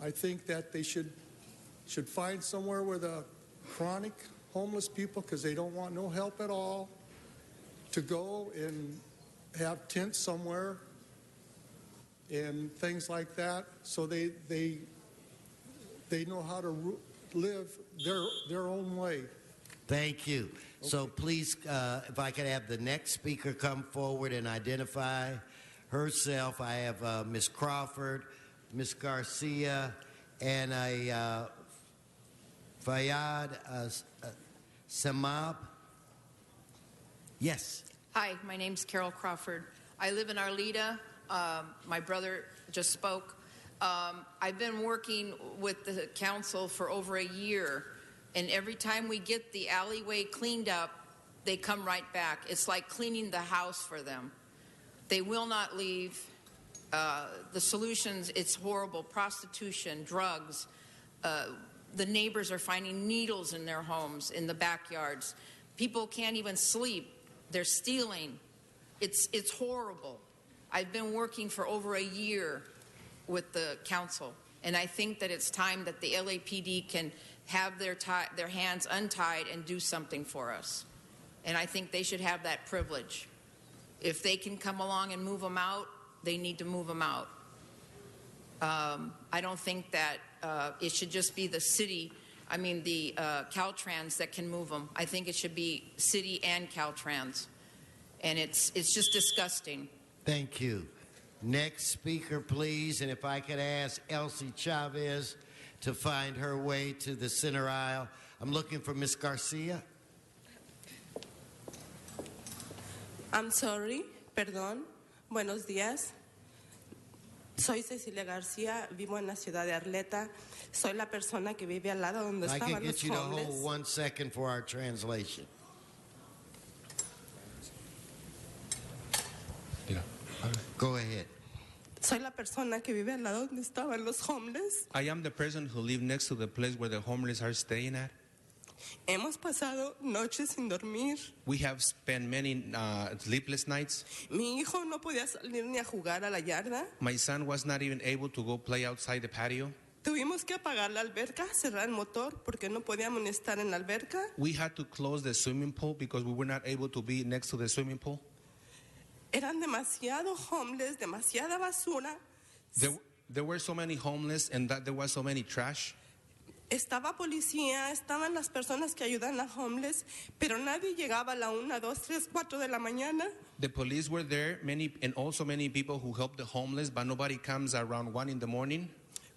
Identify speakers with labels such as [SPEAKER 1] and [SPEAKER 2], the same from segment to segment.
[SPEAKER 1] I think that they should, should find somewhere where the chronic homeless people, because they don't want no help at all, to go and have tents somewhere and things like that, so they, they, they know how to ru- live their, their own way.
[SPEAKER 2] Thank you. So please, uh, if I could have the next speaker come forward and identify herself. I have uh, Ms. Crawford, Ms. Garcia, and a uh, Fayad uh, S- uh, Samab. Yes.
[SPEAKER 3] Hi, my name's Carol Crawford. I live in Arleta. Um, my brother just spoke. Um, I've been working with the council for over a year, and every time we get the alleyway cleaned up, they come right back. It's like cleaning the house for them. They will not leave. Uh, the solutions, it's horrible prostitution, drugs. Uh, the neighbors are finding needles in their homes, in the backyards. People can't even sleep. They're stealing. It's, it's horrible. I've been working for over a year with the council, and I think that it's time that the LAPD can have their, tie, their hands untied and do something for us. And I think they should have that privilege. If they can come along and move them out, they need to move them out. Um, I don't think that uh, it should just be the city, I mean, the uh, Caltrans that can move them. I think it should be city and Caltrans. And it's, it's just disgusting.
[SPEAKER 2] Thank you. Next speaker, please. And if I could ask Elsie Chavez to find her way to the center aisle. I'm looking for Ms. Garcia.
[SPEAKER 4] I'm sorry, perdón. Buenos días. Soy Cecilia García, vivo en la ciudad de Arleta. Soy la persona que vive al lado donde
[SPEAKER 2] I can
[SPEAKER 4] estaban
[SPEAKER 2] get
[SPEAKER 4] los
[SPEAKER 2] you to hold
[SPEAKER 4] homeless.
[SPEAKER 2] one second for our translation. Go ahead.
[SPEAKER 4] Soy la persona que vive al lado donde estaban los homeless.
[SPEAKER 5] I am the person who live next to the place where the homeless are staying at.
[SPEAKER 4] Hemos pasado noches sin dormir.
[SPEAKER 5] We have spent many uh, sleepless nights.
[SPEAKER 4] Mi hijo no podía salir ni a jugar a la yarda.
[SPEAKER 5] My son was not even able to go play outside the patio.
[SPEAKER 4] Tuvimos que apagar la alberca, cerrar el motor porque no podíamos estar en la alberca.
[SPEAKER 5] We had to close the swimming pool because we were not able to be next to the swimming pool.
[SPEAKER 4] Eran demasiado homeless, demasiada basura.
[SPEAKER 5] There, there were so many homeless and that there was so many trash.
[SPEAKER 4] Estaba policía, estaban las personas que ayudan a homeless, pero nadie llegaba a la 1, 2, 3, 4 de la mañana.
[SPEAKER 5] The police were there, many and also many people who helped the homeless, but nobody comes around one in the morning.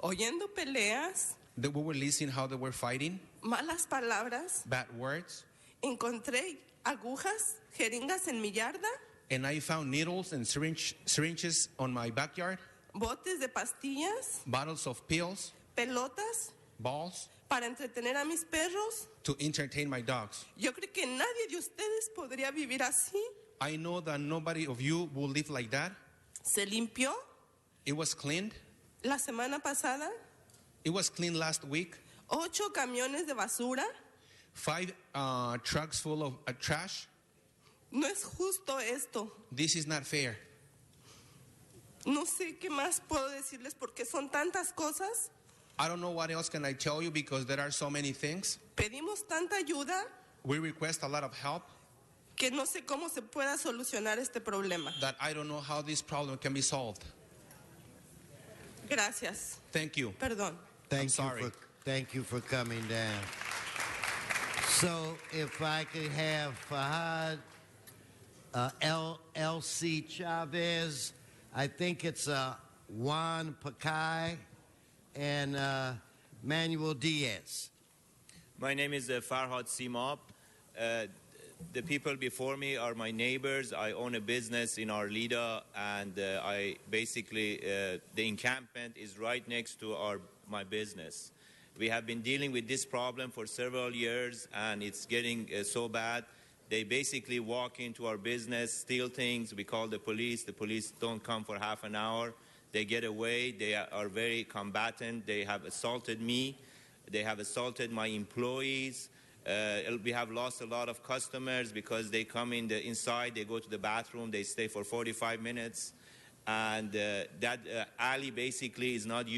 [SPEAKER 4] Oyendo peleas,
[SPEAKER 5] They we were listening how they were fighting,
[SPEAKER 4] malas palabras,
[SPEAKER 5] bad words,
[SPEAKER 4] encontré agujas, jeringas en mi yarda,
[SPEAKER 5] and I found needles and syringe, syringes on my backyard,
[SPEAKER 4] botes de pastillas,
[SPEAKER 5] bottles of pills,
[SPEAKER 4] pelotas
[SPEAKER 5] balls
[SPEAKER 4] para entretener a mis perros.
[SPEAKER 5] to entertain my dogs.
[SPEAKER 4] Yo creo que nadie de ustedes podría vivir así.
[SPEAKER 5] I know that nobody of you will live like that.
[SPEAKER 4] Se limpió
[SPEAKER 5] It was cleaned.
[SPEAKER 4] la semana pasada
[SPEAKER 5] It was cleaned last week.
[SPEAKER 4] ocho camiones de basura.
[SPEAKER 5] Five uh, trucks full of uh, trash.
[SPEAKER 4] No es justo esto.
[SPEAKER 5] This is not fair.
[SPEAKER 4] No sé qué más puedo decirles porque son tantas cosas.
[SPEAKER 5] I don't know what else can I tell you because there are so many things.
[SPEAKER 4] Pedimos tanta ayuda
[SPEAKER 5] We request a lot of help
[SPEAKER 4] que no sé cómo se pueda solucionar este problema.
[SPEAKER 5] that I don't know how this problem can be solved.
[SPEAKER 4] Gracias.
[SPEAKER 5] Thank you.
[SPEAKER 4] Perdón.
[SPEAKER 2] Thank
[SPEAKER 5] sorry.
[SPEAKER 2] you for thank you for coming down. So if I could have Fahad uh, L L C Chavez, I think it's uh, Juan Pacay and uh, Manuel Diaz.
[SPEAKER 6] My name is uh, Farhad Simab. Uh, the people before me are my neighbors. I own a business in Arlida, and uh, I basically uh, the encampment is right next to our my business. We have been dealing with this problem for several years, and it's getting uh, so bad. They basically walk into our business, steal things. We call the police. The police don't come for half an hour. They get away. They are- are very combatant. They have assaulted me. They have assaulted my employees. Uh, we have lost a lot of customers because they come in the inside, they go to the bathroom, they stay for 45 minutes, and uh, that uh, alley basically is not used.